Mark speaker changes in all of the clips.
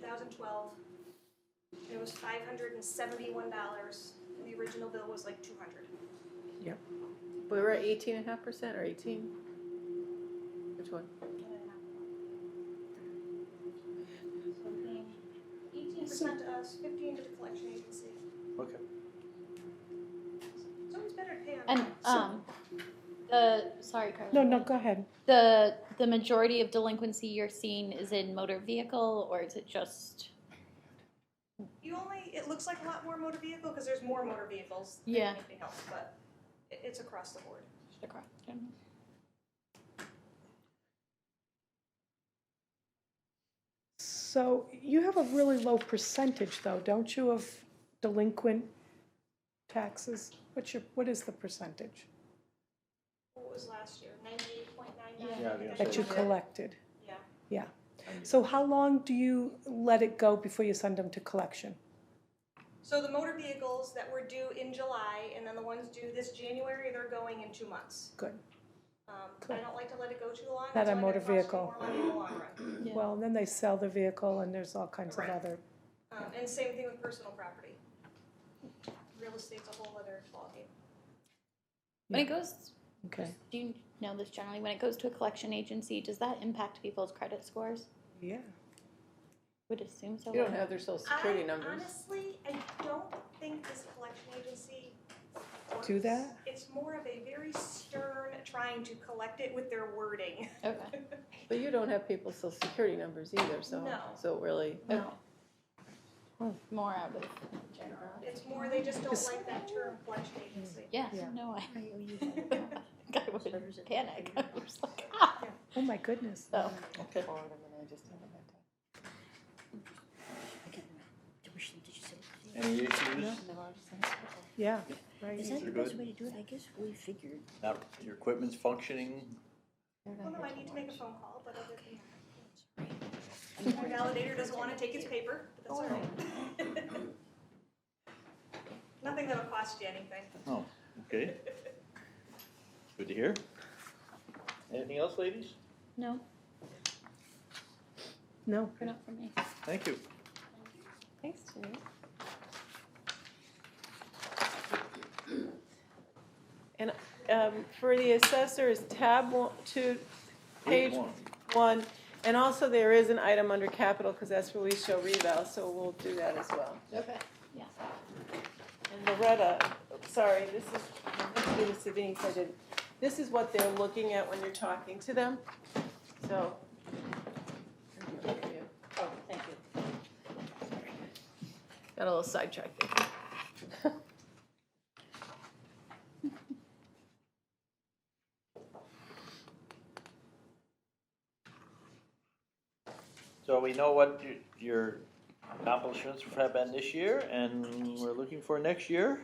Speaker 1: 2012. It was $571, and the original bill was like 200.
Speaker 2: We were at eighteen and a half percent or eighteen? Which one?
Speaker 1: Eighteen percent to us, fifteen to the collection agency.
Speaker 3: Okay.
Speaker 1: So it's better to pay on.
Speaker 4: And um, the sorry, Carla.
Speaker 5: No, no, go ahead.
Speaker 4: The the majority of delinquency you're seeing is in motor vehicle, or is it just?
Speaker 1: You only, it looks like a lot more motor vehicle, because there's more motor vehicles than
Speaker 4: Yeah.
Speaker 1: anything else, but it, it's across the board.
Speaker 5: So you have a really low percentage though, don't you, of delinquent taxes? What's your, what is the percentage
Speaker 1: What was last year, ninety-eight point nine
Speaker 4: Yeah.
Speaker 1: nine?
Speaker 3: Yeah, I think
Speaker 5: that you
Speaker 3: Yeah.
Speaker 5: collected?
Speaker 1: Yeah,
Speaker 5: So how long do you let it go before you send them to collection?
Speaker 1: so the motor vehicles that were due in July, and then the ones due this January, they're going in two months.
Speaker 5: Good.
Speaker 1: Um, I
Speaker 5: Cool.
Speaker 1: don't like to let it go too long,
Speaker 5: Not
Speaker 1: it's
Speaker 5: a
Speaker 1: only gonna
Speaker 5: motor
Speaker 1: cost me
Speaker 5: vehicle.
Speaker 1: more money in the long run.
Speaker 4: Yeah.
Speaker 5: Well, then they sell the vehicle and there's all kinds of
Speaker 1: Correct.
Speaker 5: other,
Speaker 1: Um, and same thing with personal property. Real estate's a whole other ballgame.
Speaker 4: When it goes,
Speaker 5: okay,
Speaker 4: do you know this generally? When it goes to a collection agency, does that impact people's credit scores?
Speaker 5: yeah.
Speaker 4: Would assume so.
Speaker 2: You don't have their social security numbers.
Speaker 1: I honestly, I don't think this collection agency works.
Speaker 5: Do that?
Speaker 1: It's more of a very stern trying to collect it with their wording.
Speaker 4: Okay.
Speaker 2: But you don't have people's social security numbers either, so,
Speaker 1: No.
Speaker 2: so it really.
Speaker 4: No. Hmm. More out of general.
Speaker 1: It's more they just don't
Speaker 5: This-
Speaker 1: like that term collection agency.
Speaker 4: Yeah.
Speaker 5: Yeah.
Speaker 4: No, I. I would panic. I was like,
Speaker 5: Oh, my goodness.
Speaker 4: So,
Speaker 2: Okay.
Speaker 6: Tuition, did you say?
Speaker 3: Any issues?
Speaker 5: Yeah, right.
Speaker 6: Is that the
Speaker 3: You're
Speaker 6: best
Speaker 3: good?
Speaker 6: way to do it? I guess we figured.
Speaker 3: Now, your equipment's functioning?
Speaker 1: Well, no, I need to make a phone call, but other than that. My validator doesn't wanna take its paper, but that's all right. Nothing that'll cost you anything.
Speaker 3: Oh, okay. Good to hear. Anything else, ladies?
Speaker 4: no,
Speaker 5: No,
Speaker 4: not for me.
Speaker 3: Thank you.
Speaker 4: Thanks, Julie.
Speaker 7: um, for the assessors, tab one, two, page
Speaker 3: Eight one.
Speaker 7: one. And also there is an item under capital, because that's where we show reval, so we'll do that as well.
Speaker 4: Okay. Yeah.
Speaker 7: And Loretta, sorry, this is, let's do this to Denise, I didn't. This is what they're looking at when you're talking to them, so. Oh, thank you.
Speaker 2: Got a little sidetracked there.
Speaker 3: So we know what y- your accomplishments have been this year, and we're looking for next year.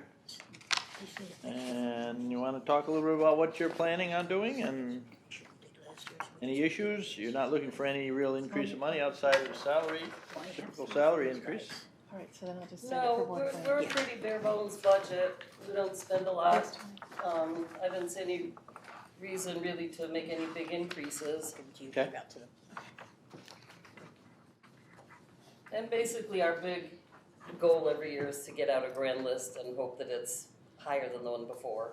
Speaker 6: They said it
Speaker 3: And you wanna talk a little bit about what you're planning on doing and
Speaker 6: did last year, so
Speaker 3: any issues? You're not looking for any real increase in money outside of the salary,
Speaker 6: why have
Speaker 3: typical
Speaker 6: some
Speaker 3: salary
Speaker 6: of those
Speaker 3: increase?
Speaker 6: guys?
Speaker 2: All right, so then I'll just send it for
Speaker 8: No,
Speaker 2: one
Speaker 8: we're,
Speaker 2: thing.
Speaker 8: we're a pretty bare bones budget, we don't spend a lot. Um, I didn't see any reason really to make any big increases.
Speaker 6: Give them to you,
Speaker 3: Okay.
Speaker 6: give out to them.
Speaker 8: And basically, our big goal every year is to get out a grand list and hope that it's higher than the one before.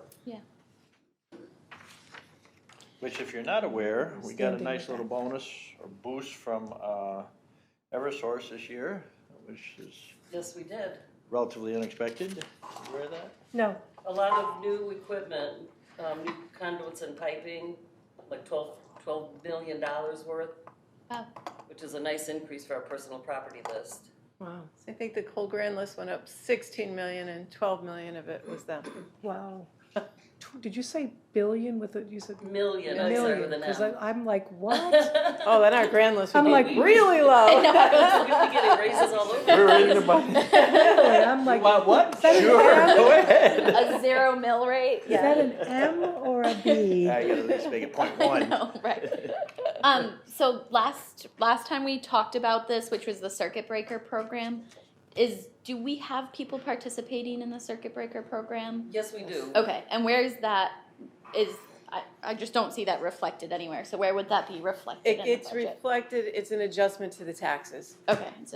Speaker 3: Which if you're not aware, we got a
Speaker 2: Standing
Speaker 3: nice
Speaker 2: with
Speaker 3: little
Speaker 2: that.
Speaker 3: bonus or boost from, uh, Eversource this year, which is
Speaker 8: Yes, we did.
Speaker 3: relatively unexpected. You Aware of that?
Speaker 5: no,
Speaker 8: A lot of new equipment, um, new conduits and piping, like twelve, twelve million dollars worth.
Speaker 4: Wow.
Speaker 8: Which is a nice increase for our personal property list.
Speaker 2: Wow. So I think the whole grand list went up sixteen million and twelve million of it was them.
Speaker 5: wow. Tw- Did you say billion with it? You said
Speaker 8: Million, I started
Speaker 5: million?
Speaker 8: with an
Speaker 5: Because
Speaker 8: M.
Speaker 5: I'm like, what?
Speaker 2: Oh, then our grand list would
Speaker 5: I'm
Speaker 2: be
Speaker 5: like,
Speaker 2: really low.
Speaker 8: We're gonna be getting raises all
Speaker 3: We're
Speaker 8: over.
Speaker 3: ready to buy.
Speaker 5: Really? I'm like,
Speaker 3: What, what?
Speaker 5: that an
Speaker 3: Sure,
Speaker 5: M?
Speaker 3: go ahead.
Speaker 4: A zero mill rate.
Speaker 5: is that an M or a B?
Speaker 3: I gotta at least make it point
Speaker 4: I
Speaker 3: one.
Speaker 4: know, right. um, so last last time we talked about this, which was the circuit breaker program, is do we have people participating in the circuit breaker program?
Speaker 8: Yes, we do.
Speaker 4: Okay, and where is that? Is I, I just don't see that reflected anywhere. So where would that be reflected?
Speaker 7: It
Speaker 4: in
Speaker 7: gets
Speaker 4: the budget?
Speaker 7: reflected, it's an adjustment to the taxes.
Speaker 4: okay. So